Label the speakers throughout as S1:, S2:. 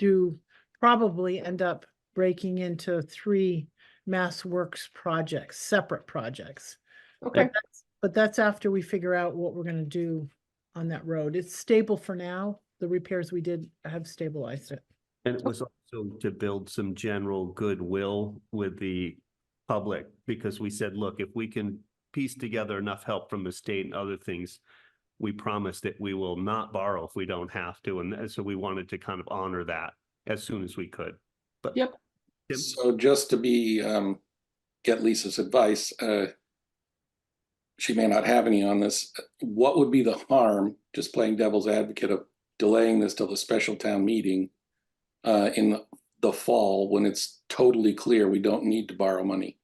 S1: do probably end up breaking into three Mass Works projects, separate projects.
S2: Okay,
S1: But that's after we figure out what we're gonna do on that road. It's stable for now. The repairs we did have stabilized it.
S3: And it was also to build some general goodwill with the public, because we said, look, if we can piece together enough help from the state and other things, we promise that we will not borrow if we don't have to, and th- so we wanted to kind of honor that as soon as we could. But
S2: Yep.
S3: Tim,
S4: So just to be, um, get Lisa's advice, uh, she may not have any on this. What would be the harm, just playing devil's advocate of delaying this till the special town meeting uh, in the fall when it's totally clear we don't need to borrow money?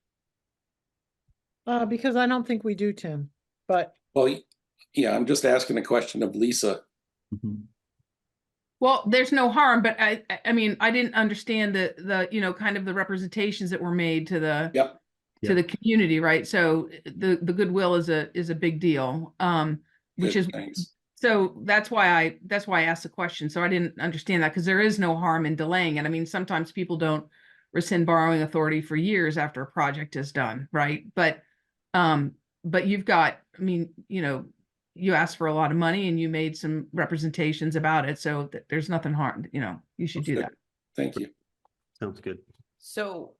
S1: Uh, because I don't think we do, Tim, but
S4: Well, yeah, I'm just asking a question of Lisa.
S3: Mm-hmm.
S2: well, there's no harm, but I, I- I mean, I didn't understand the, the, you know, kind of the representations that were made to the.
S4: Yep.
S3: Yeah.
S2: To the community, right? So the, the goodwill is a, is a big deal, um, which
S4: Good,
S2: is,
S4: thanks.
S2: so that's why I, that's why I asked the question. So I didn't understand that because there is no harm in delaying it. I mean, sometimes people don't rescind borrowing authority for years after a project is done, right? But, um, but you've got, I mean, you know, you asked for a lot of money and you made some representations about it. So th- there's nothing hard, you know, you should do
S4: Okay.
S2: that.
S4: Thank you.
S3: sounds good.
S5: So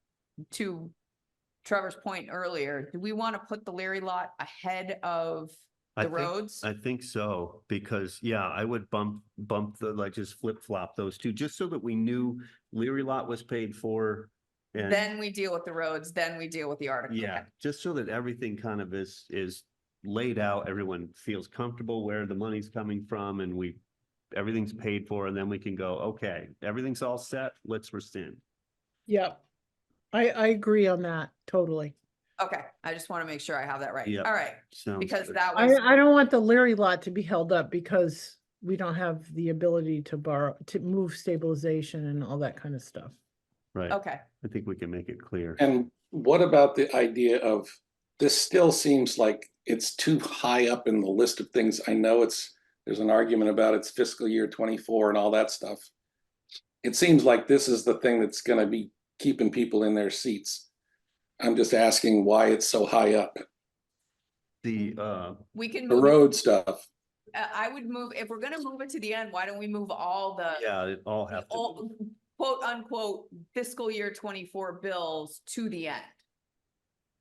S5: to Trevor's point earlier, do we want to put the Leary lot ahead of
S3: I
S5: the
S3: think-
S5: roads?
S3: I think so, because, yeah, I would bump, bump the, like, just flip flop those two, just so that we knew Leary Lot was paid for. and-
S5: Then we deal with the roads, then we deal with the article.
S3: Yeah, just so that everything kind of is, is laid out, everyone feels comfortable where the money's coming from and we, everything's paid for and then we can go, okay, everything's all set, let's rescind.
S1: yeah. I, I agree on that totally.
S5: Okay, I just want to make sure I have that right.
S3: Yeah.
S5: All right,
S3: Sounds
S5: because
S3: good.
S5: that
S1: I,
S5: was,
S1: I don't want the Leary lot to be held up because we don't have the ability to borrow, to move stabilization and all that kind of stuff.
S3: Right,
S5: okay,
S3: I think we can make it clear.
S4: And what about the idea of, this still seems like it's too high up in the list of things. I know it's, there's an argument about it's fiscal year twenty-four and all that stuff. It seems like this is the thing that's gonna be keeping people in their seats. I'm just asking why it's so high up,
S3: The, uh,
S5: we can
S4: the
S5: move, it-
S4: road stuff.
S5: uh, I would move, if we're going to move it to the end, why don't we move all the
S3: yeah, it all
S5: Uh, the
S3: have to,
S5: all- quote unquote fiscal year twenty-four bills to the end?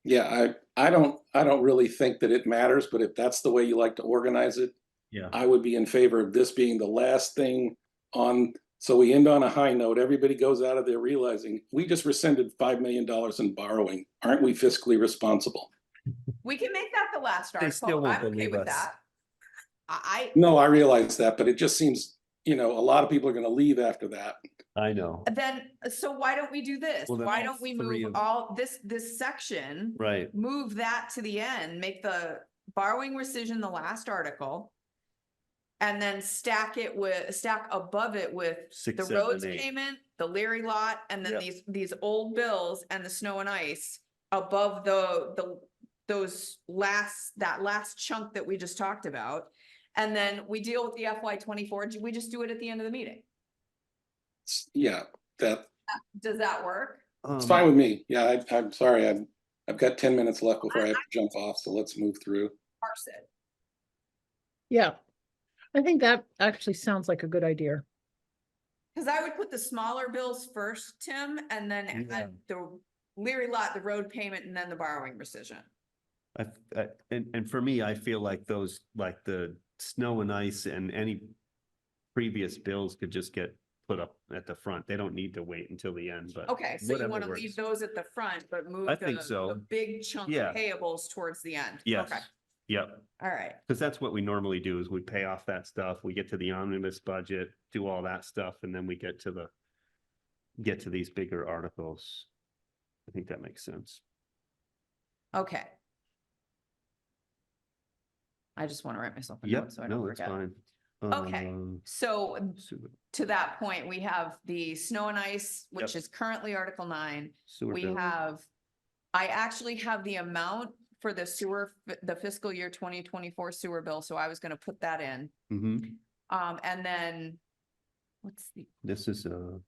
S4: Yeah, I, I don't, I don't really think that it matters, but if that's the way you like to organize it,
S3: yeah,
S4: I would be in favor of this being the last thing on, so we end on a high note. Everybody goes out of there realizing we just rescinded five million dollars in borrowing. Aren't we fiscally responsible?
S5: We can make that the last
S3: They still
S5: article.
S3: won't
S5: I'm okay
S3: believe
S5: with
S3: us.
S5: that. I, I,
S4: No, I realize that, but it just seems, you know, a lot of people are gonna leave after that.
S3: I know,
S5: Then, so why don't we do this?
S3: Well, then
S5: Why
S3: all
S5: don't we
S3: three of-
S5: move all this, this section?
S3: right,
S5: Move that to the end, make the borrowing rescission the last article. And then stack it with, stack above it with the
S3: six,
S5: roads
S3: seven, eight.
S5: payment, the Leary lot, and then
S3: Yep.
S5: these, these old bills and the snow and ice. Above the, the, those last, that last chunk that we just talked about. And then we deal with the FY twenty-four, Do we just do it at the end of the meeting.
S4: It's- Yeah, that,
S5: Does that work?
S4: it's
S3: Um,
S4: fine with me. Yeah, I, I'm sorry, I've, I've got ten minutes left before I have to jump off, so let's move through.
S5: Parse it.
S1: Yeah. I think that actually sounds like a good idea.
S5: Cause I would put the smaller bills first, Tim, and then
S3: Yeah.
S5: add the Leary lot, the road payment, and then the borrowing rescission.
S3: I, I, and, and for me, I feel like those, like the snow and ice and any previous bills could just get put up at the front. They don't need to wait until the end, but.
S5: Okay, so you
S3: whatever
S5: wanna leave
S3: works.
S5: those at the front, but move
S3: I
S5: the,
S3: think so.
S5: the big chunk
S3: Yeah.
S5: payables towards the end.
S3: Yes,
S5: Okay,
S3: yep,
S5: all right,
S3: because that's what we normally do is we pay off that stuff, we get to the omnibus budget, do all that stuff, and then we get to the get to these bigger articles. I think that makes sense.
S5: okay. I just wanna write myself a
S3: Yep,
S5: note so I don't
S3: no, it's
S5: forget.
S3: fine.
S5: Okay.
S3: Um,
S5: So
S3: sewer-
S5: to that point, we have the snow and ice, which
S3: Yep.
S5: is currently Article nine.
S3: sewer
S5: We
S3: bill.
S5: have, I actually have the amount for the sewer, f- the fiscal year twenty
S3: Mm-hmm.
S5: twenty-four sewer bill, so I was gonna put that in.
S3: Mhm.
S5: Um, and then
S6: What's the
S3: This is uh, a